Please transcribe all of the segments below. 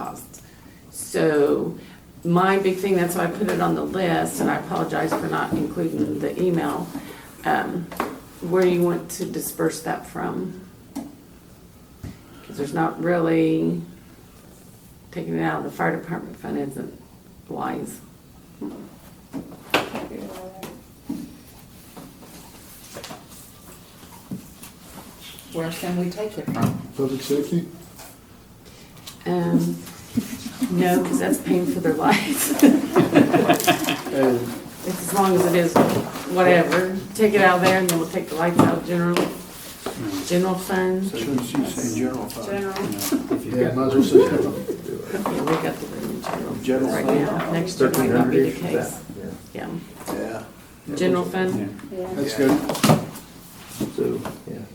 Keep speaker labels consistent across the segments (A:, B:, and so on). A: costs. So my big thing, that's why I put it on the list, and I apologize for not including the email, um, where you want to disperse that from. Because there's not really, taking it out of the fire department fund isn't wise.
B: Where can we take it from?
C: Public safety?
A: Um, no, because that's paying for their lives.
C: And
A: As long as it is whatever, take it out of there and then we'll take the lights out of general, general fund.
D: Since you say general fund.
A: General,
D: If you've
C: Yeah,
D: got-
C: might as well say general.
A: yeah, we got the room in general. fund
D: General
A: Right
D: fund.
A: now, next year might not be the
C: 1300-ish,
A: case. Yeah,
D: Yeah.
A: general
D: Yeah.
A: fund,
C: That's good.
E: So, yeah.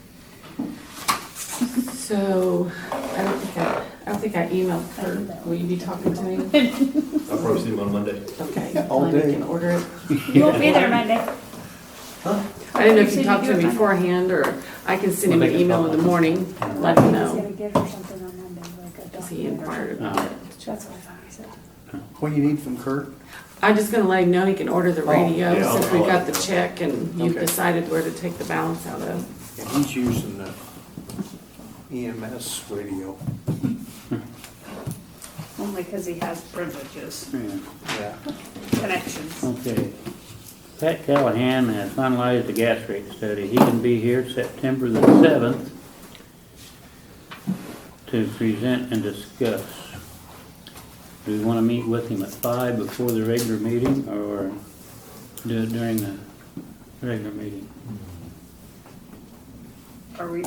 A: so I don't think I, I don't think I emailed Kurt, will you be talking to me?
F: I'll probably see him on Monday.
A: Okay.
E: All
A: Well, you
E: day.
A: can order it.
G: You won't be there Monday.
A: I didn't know if
G: So
A: you talked to
G: do
A: him
G: it Monday.
A: beforehand, or I can send him
F: Well,
A: an
F: they can
A: email in the
F: pop up.
A: morning, let him
G: He's gonna
A: know,
G: give her something on Monday, like a
A: because he
G: document. or-
A: inquired.
D: Uh,
G: That's what I thought he said.
D: What do you need from Kurt?
A: I'm just gonna let him know he can order the radio,
F: yeah,
A: since
F: I'll-
A: we
F: I'll
A: got
F: let
A: the
F: him know.
A: check and you've
D: Okay.
A: decided where to take the balance out of.
D: Yeah, He's using the EMS radio.
G: Only because he has privileges,
H: Yeah.
D: Yeah.
A: Oh.
G: connections.
H: Okay. Pat Callahan has finalized the gas rate study. He can be here September the seventh to present and discuss. Do we want to meet with him at five before the regular meeting or do it during the regular meeting?
G: Are we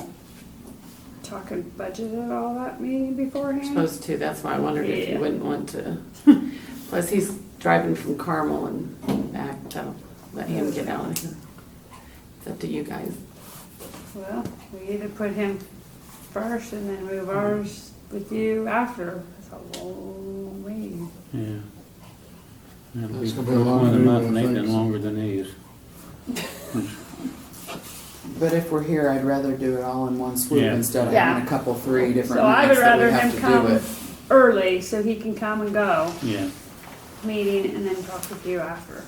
G: talking budget at all that meeting
A: We're
G: beforehand?
A: Supposed to, that's why I wondered if you
G: Yeah.
A: wouldn't want to. Plus, he's driving from Carmel and back, so let him get out of here. It's up to you guys.
G: Well, we either put him first and then move ours with you after. That's a long meeting.
H: Yeah. That'll
C: That's
H: be
C: gonna be a long
H: one of the
C: meeting, I
H: month,
C: think.
H: Nathan, longer than these.
B: But if we're here, I'd rather do it all in one swoop
H: Yeah.
B: instead of
G: Yeah.
B: having a couple, three different
G: So I would
B: nights that we
G: rather
B: have
G: him
B: to do
G: come
B: it.
G: early so he can come and go,
H: Yeah.
G: meeting and then talk with you after.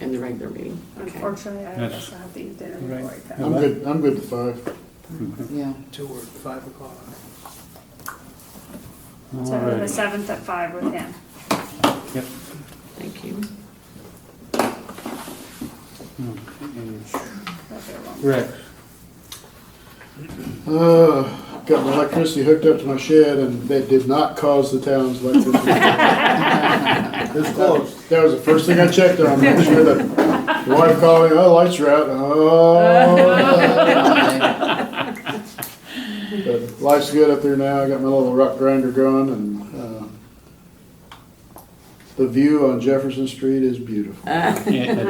A: In the regular meeting, okay.
G: Unfortunately, I
H: That's-
G: also have to eat dinner
H: Right.
G: before I come.
C: I'm good, I'm good to five.
B: Yeah,
D: Till we're at five o'clock.
H: All
G: So the
H: right.
G: seventh at five with him.
H: Yep.
A: Thank you.
G: That'd be a long-
H: Rex.
C: Uh, got my electricity hooked up to my shed and that did not cause the town's electricity. It's close. That was the first thing I checked on, make sure that, the wife called me, oh, lights are out, oh. But life's good up there now, I got my little rock grinder going and, uh, the view on Jefferson Street is beautiful.
H: Yeah, it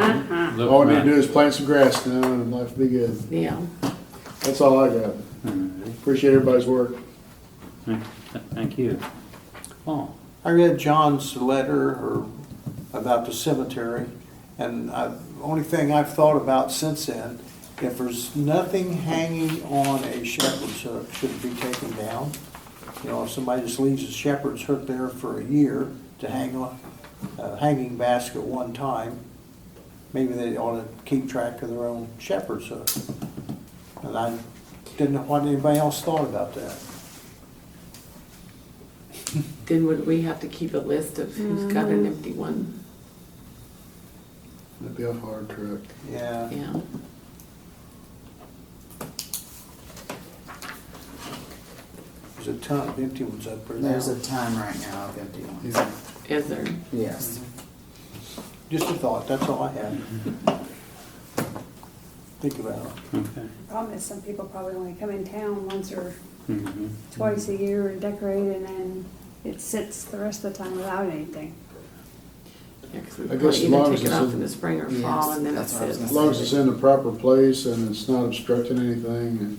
H: looks
C: All I need to
H: nice.
C: do is plant some grass now and life will be good.
A: Yeah,
C: That's all I got. Appreciate everybody's work.
H: Thank you. Paul?
D: I read John's letter or about the cemetery, and I, only thing I've thought about since then, if there's nothing hanging on a shepherd's hook, should it be taken down? You know, if somebody just leaves a shepherd's hook there for a year to hang on, a hanging basket one time, maybe they ought to keep track of their own shepherd's hook. And I didn't know what anybody else thought about that.
A: then would we have to keep a list of who's got an empty one?
C: That'd be a hard truck.
D: Yeah.
A: Yeah.
D: There's a ton of empty ones up there now.
B: there's a ton right now of empty ones.
A: Is there?
B: Yes.
D: Just a thought, that's all I had. Think about it.
H: Okay.
G: Problem is, some people probably only come in town once or
H: Mhm.
G: twice a year and decorate, and then it sits the rest of the time without anything.
A: Yeah, 'cause we
C: I guess
A: probably
C: as
A: either
C: long
A: take
C: as
A: it
C: it's
A: off
C: in-
A: in the spring or
B: Yes,
A: fall, and then it
B: that's what I was
A: sits.
C: As long as it's in the proper place and it's not obstructing anything and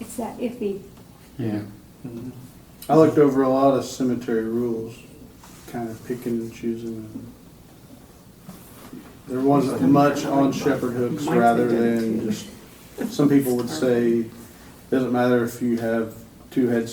G: It's that iffy.
H: Yeah.
I: I looked over a lot of cemetery rules, kind of picking and choosing. them. There wasn't much on shepherd hooks rather than just, some people would say, doesn't matter if you have
C: two heads